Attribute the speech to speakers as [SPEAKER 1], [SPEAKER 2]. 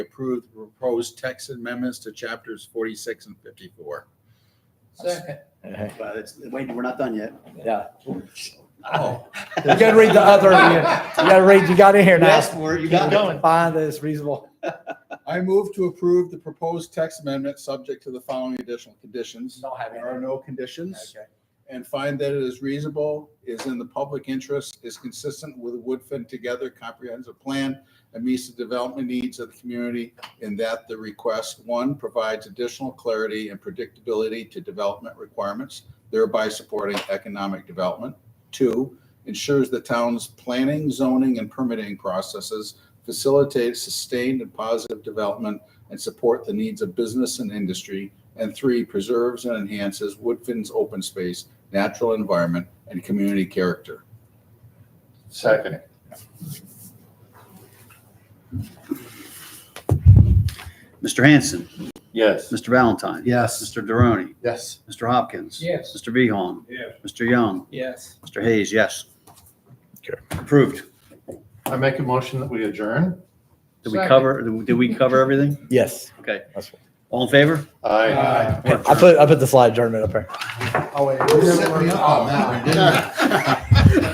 [SPEAKER 1] approve the proposed text amendments to chapters forty-six and fifty-four.
[SPEAKER 2] Second.
[SPEAKER 3] You
[SPEAKER 4] But it's, wait, we're not done yet.
[SPEAKER 1] Oh,
[SPEAKER 3] gotta read the other, you you gotta read, you got in here
[SPEAKER 4] You
[SPEAKER 3] now.
[SPEAKER 4] asked for it, you
[SPEAKER 3] Keep
[SPEAKER 4] got it.
[SPEAKER 3] going. Find that it's reasonable.
[SPEAKER 1] I move to approve the proposed text amendment subject to the following additional conditions.
[SPEAKER 3] Don't have
[SPEAKER 1] There are no conditions
[SPEAKER 3] Okay.
[SPEAKER 1] and find that it is reasonable, is in the public interest, is consistent with the Woodfin Together comprehensive plan and meets the development needs of the community in that the request, one, provides additional clarity and predictability to development requirements, thereby supporting economic development. Two, ensures the town's planning, zoning, and permitting processes facilitate sustained and positive development and support the needs of business and industry. And three, preserves and enhances Woodfin's open space, natural environment, and community character.
[SPEAKER 2] Second.
[SPEAKER 4] Mr. Hanson,
[SPEAKER 2] Yes.
[SPEAKER 4] Mr. Valentine.
[SPEAKER 1] Yes.
[SPEAKER 4] Mr. Deroni,
[SPEAKER 2] Yes.
[SPEAKER 4] Mr. Hopkins.
[SPEAKER 2] Yes.
[SPEAKER 4] Mr. Beehorn.
[SPEAKER 2] Yes.
[SPEAKER 4] Mr. Young,
[SPEAKER 2] Yes.
[SPEAKER 4] Mr. Hayes, yes.
[SPEAKER 3] Okay.
[SPEAKER 4] Approved.
[SPEAKER 2] I make a motion that we adjourn.
[SPEAKER 4] Did we
[SPEAKER 2] Second.
[SPEAKER 4] cover, did we cover everything?
[SPEAKER 3] Yes.
[SPEAKER 4] Okay.
[SPEAKER 3] That's right.
[SPEAKER 4] All in favor?
[SPEAKER 2] Aye. Oh,
[SPEAKER 3] I put, I put the slide adjournment up here.
[SPEAKER 1] You set me up on that one, didn't you?